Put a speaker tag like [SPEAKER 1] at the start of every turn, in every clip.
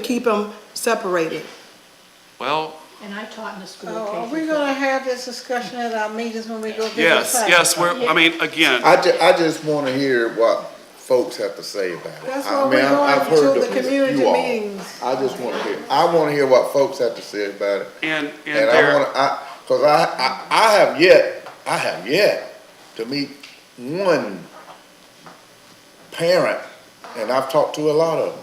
[SPEAKER 1] keep them separated.
[SPEAKER 2] Well,
[SPEAKER 3] And I taught in a school
[SPEAKER 4] Oh, are we
[SPEAKER 3] occasionally.
[SPEAKER 4] gonna have this discussion at our meetings when we go visit?
[SPEAKER 2] yes,
[SPEAKER 4] sites?
[SPEAKER 2] yes, we're, I mean, again,
[SPEAKER 5] I ju- I just wanna hear what folks have to say about it.
[SPEAKER 4] That's why
[SPEAKER 5] I mean,
[SPEAKER 4] we're
[SPEAKER 5] I- Uh, I've
[SPEAKER 4] going
[SPEAKER 5] heard
[SPEAKER 4] to
[SPEAKER 5] the-
[SPEAKER 4] the community
[SPEAKER 5] you all.
[SPEAKER 4] meetings.
[SPEAKER 5] I just wanna hear, I wanna hear what folks have to say about it.
[SPEAKER 2] and, and
[SPEAKER 5] And I wanna,
[SPEAKER 2] there,
[SPEAKER 5] I, cause I, I, I have yet, I have yet to meet one parent, and I've talked to a lot of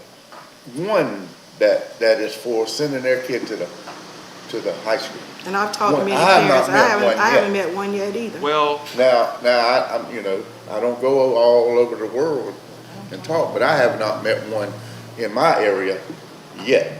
[SPEAKER 5] them, one that, that is for sending their kid to the, to the high school.
[SPEAKER 1] And I've talked to
[SPEAKER 5] One-
[SPEAKER 1] many
[SPEAKER 5] I have not
[SPEAKER 1] parents, I
[SPEAKER 5] met
[SPEAKER 1] haven't,
[SPEAKER 5] one
[SPEAKER 1] I
[SPEAKER 5] yet.
[SPEAKER 1] haven't met one yet either.
[SPEAKER 2] well,
[SPEAKER 5] Now, now, I, I'm, you know, I don't go all over the world and talk, but I have not met one in my area yet.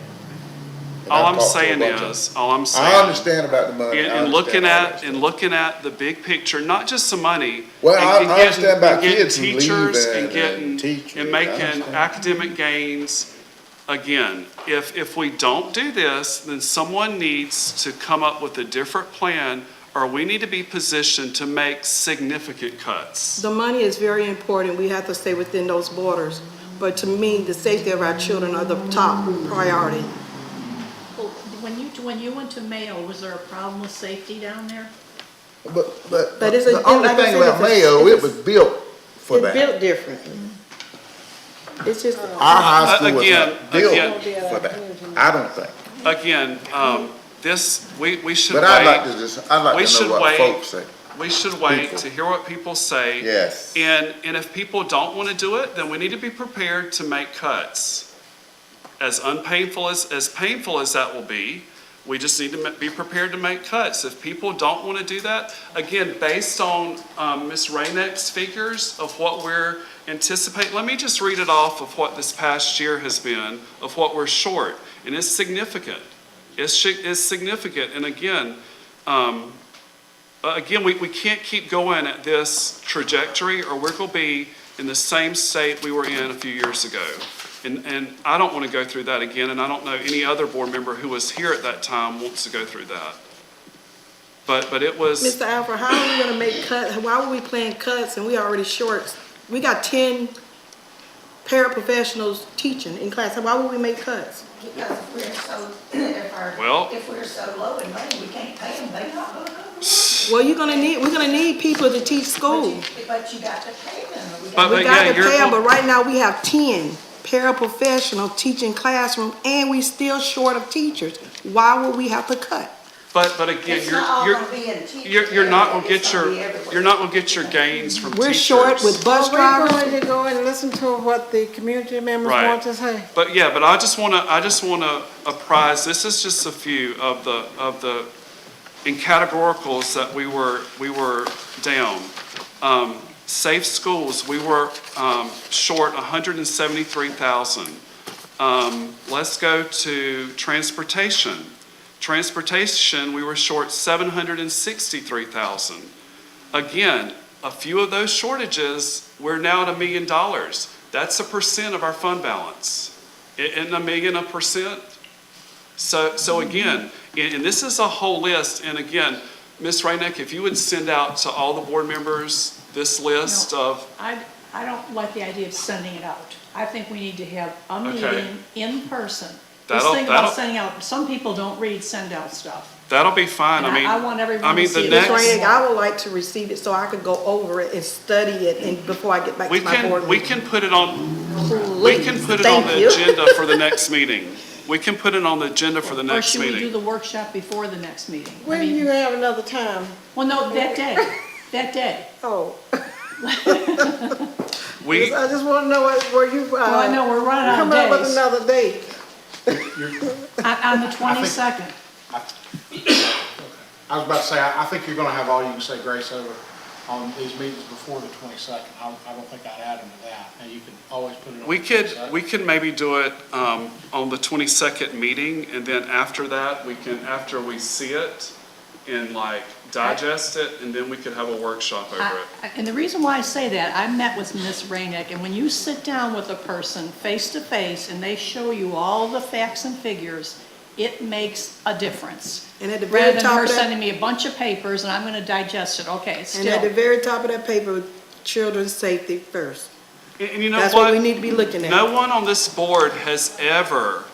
[SPEAKER 5] And
[SPEAKER 2] all
[SPEAKER 5] I've
[SPEAKER 2] I'm
[SPEAKER 5] talked to a
[SPEAKER 2] saying
[SPEAKER 5] bunch of-
[SPEAKER 2] is, all I'm saying.
[SPEAKER 5] I understand about the money.
[SPEAKER 2] In,
[SPEAKER 5] I
[SPEAKER 2] in looking
[SPEAKER 5] understand all
[SPEAKER 2] at,
[SPEAKER 5] that.
[SPEAKER 2] in looking at the big picture, not just some money.
[SPEAKER 5] Well,
[SPEAKER 2] and-
[SPEAKER 5] I-
[SPEAKER 2] and
[SPEAKER 5] I
[SPEAKER 2] getting-
[SPEAKER 5] understand about
[SPEAKER 2] and getting
[SPEAKER 5] kids who leave
[SPEAKER 2] Teachers and
[SPEAKER 5] and- and teachers,
[SPEAKER 2] getting, and
[SPEAKER 5] I
[SPEAKER 2] making
[SPEAKER 5] understand.
[SPEAKER 2] academic gains. Again, if, if we don't do this, then someone needs to come up with a different plan or we need to be positioned to make significant cuts.
[SPEAKER 1] The money is very important, we have to stay within those borders. But to me, the safety of our children are the top priority.
[SPEAKER 3] Well, When you, when you went to Mayo, was there a problem with safety down there?
[SPEAKER 5] But, but,
[SPEAKER 1] But it's a-
[SPEAKER 5] the only
[SPEAKER 1] like I
[SPEAKER 5] thing
[SPEAKER 1] said,
[SPEAKER 5] about
[SPEAKER 1] it's a-
[SPEAKER 5] Mayo, it
[SPEAKER 1] it's-
[SPEAKER 5] was built for
[SPEAKER 1] It's
[SPEAKER 5] that.
[SPEAKER 1] built differently. It's just,
[SPEAKER 5] Our high school was
[SPEAKER 2] Again,
[SPEAKER 5] not built
[SPEAKER 2] again.
[SPEAKER 5] for that, I don't think.
[SPEAKER 2] Again, um, this, we, we should
[SPEAKER 5] But I'd like
[SPEAKER 2] wait,
[SPEAKER 5] to just, I'd
[SPEAKER 2] We
[SPEAKER 5] like to
[SPEAKER 2] should
[SPEAKER 5] know what
[SPEAKER 2] wait.
[SPEAKER 5] folks say.
[SPEAKER 2] we should wait
[SPEAKER 5] People.
[SPEAKER 2] to hear what people say.
[SPEAKER 5] Yes.
[SPEAKER 2] And, and if people don't want to do it, then we need to be prepared to make cuts. As unpainful as, as painful as that will be, we just need to ma- be prepared to make cuts. If people don't want to do that, again, based on um, Ms. Rainick's figures of what we're anticipating, let me just read it off of what this past year has been, of what we're short, and it's significant. It's, shi- it's significant, and again, um, uh, again, we, we can't keep going at this trajectory or we're going to be in the same state we were in a few years ago. And, and I don't want to go through that again, and I don't know any other board member who was here at that time wants to go through that. But, but it was,
[SPEAKER 1] Mr. Alford, how are we gonna make cuts, why were we playing cuts and we already shorts? We got ten paraprofessionals teaching in class, why would we make cuts?
[SPEAKER 6] Because if we're so, if our,
[SPEAKER 2] Well-
[SPEAKER 6] if we're so low in money, we can't pay them, they not gonna go.
[SPEAKER 1] Well, you're gonna need, we're gonna need people to teach
[SPEAKER 6] But
[SPEAKER 1] school.
[SPEAKER 6] you- But you got to pay them. We
[SPEAKER 2] But-
[SPEAKER 6] got-
[SPEAKER 1] We
[SPEAKER 2] yeah,
[SPEAKER 1] got to
[SPEAKER 2] you're
[SPEAKER 1] pay 'em,
[SPEAKER 2] go-
[SPEAKER 1] but right now we have ten paraprofessional teaching classroom, and we still short of teachers. Why would we have to cut?
[SPEAKER 2] but, but again,
[SPEAKER 6] It's not all
[SPEAKER 2] you're,
[SPEAKER 6] gonna be in teachers.
[SPEAKER 2] you're, you're, you're not going to get
[SPEAKER 6] It's
[SPEAKER 2] your,
[SPEAKER 6] be everywhere.
[SPEAKER 2] you're not going to get your gains from teachers.
[SPEAKER 1] We're short with bus
[SPEAKER 4] Are we
[SPEAKER 1] drivers.
[SPEAKER 4] Oh, going to go and listen to what the community members
[SPEAKER 2] Right.
[SPEAKER 4] want to say?
[SPEAKER 2] But yeah, but I just want to, I just want to apprise, this is just a few of the, of the, in categoricals that we were, we were down. Um, safe schools, we were, um, short hundred and seventy-three thousand. Um, let's go to transportation. Transportation, we were short seven hundred and sixty-three thousand. Again, a few of those shortages, we're now at a million dollars. That's a percent of our fund balance. I- Isn't a million a percent? So, so again, and, and this is a whole list, and again, Ms. Rainick, if you would send out to all the board members this list of,
[SPEAKER 3] I, I don't like the idea of sending it out. I think we need to have a
[SPEAKER 2] Okay.
[SPEAKER 3] meeting in person. This
[SPEAKER 2] That'll-
[SPEAKER 3] thing
[SPEAKER 2] that'll-
[SPEAKER 3] about sending out, some people don't read send out stuff.
[SPEAKER 2] that'll be fine, I
[SPEAKER 3] And I-
[SPEAKER 2] mean.
[SPEAKER 3] I want everyone
[SPEAKER 2] I mean,
[SPEAKER 3] to
[SPEAKER 2] the
[SPEAKER 3] see this
[SPEAKER 2] next-
[SPEAKER 1] Ms. Rainick, I would like to receive it so I could go over it and study it and before I get back
[SPEAKER 2] We
[SPEAKER 1] to my
[SPEAKER 2] can,
[SPEAKER 1] board
[SPEAKER 2] we
[SPEAKER 1] meeting.
[SPEAKER 2] can put it on, we
[SPEAKER 1] Please,
[SPEAKER 2] can put it on
[SPEAKER 1] thank
[SPEAKER 2] the
[SPEAKER 1] you.
[SPEAKER 2] agenda for the next meeting. We can put it on the agenda for the
[SPEAKER 3] Or
[SPEAKER 2] next
[SPEAKER 3] should we do
[SPEAKER 2] meeting.
[SPEAKER 3] the workshop before the next meeting? I
[SPEAKER 4] When
[SPEAKER 3] mean-
[SPEAKER 4] you have another time?
[SPEAKER 3] Well, no, that day, that day.
[SPEAKER 4] Oh,
[SPEAKER 2] We,
[SPEAKER 4] I just want to know what- where you,
[SPEAKER 3] Well, I know,
[SPEAKER 4] uh,
[SPEAKER 3] we're running
[SPEAKER 4] come
[SPEAKER 3] out
[SPEAKER 4] up
[SPEAKER 3] of
[SPEAKER 4] with
[SPEAKER 3] days. On,
[SPEAKER 4] another date.
[SPEAKER 3] on the twenty-second.
[SPEAKER 7] I was about to say, I I think you're going to have all you can say grace over on these meetings before the 22nd. I I don't think I'd add them to that. Now, you can always put it on the
[SPEAKER 2] We could,
[SPEAKER 7] 22nd.
[SPEAKER 2] we could maybe do it um, on the 22nd meeting, and then after that, we can, after we see it and like digest it, and then we could have a workshop over
[SPEAKER 3] I-
[SPEAKER 2] it.
[SPEAKER 3] I- And the reason why I say that, I met with Ms. Rainick, and when you sit down with a person face to face and they show you all the facts and figures, it makes a difference.
[SPEAKER 1] And at the very
[SPEAKER 3] Rather than
[SPEAKER 1] top
[SPEAKER 3] her
[SPEAKER 1] of that-
[SPEAKER 3] sending me a bunch of papers and I'm gonna digest it, okay, it's
[SPEAKER 1] And at the
[SPEAKER 3] still,
[SPEAKER 1] very top of that paper, children's safety first.
[SPEAKER 2] And- And you know
[SPEAKER 1] That's what we
[SPEAKER 2] what?
[SPEAKER 1] need to be looking at.
[SPEAKER 2] No one on this board has ever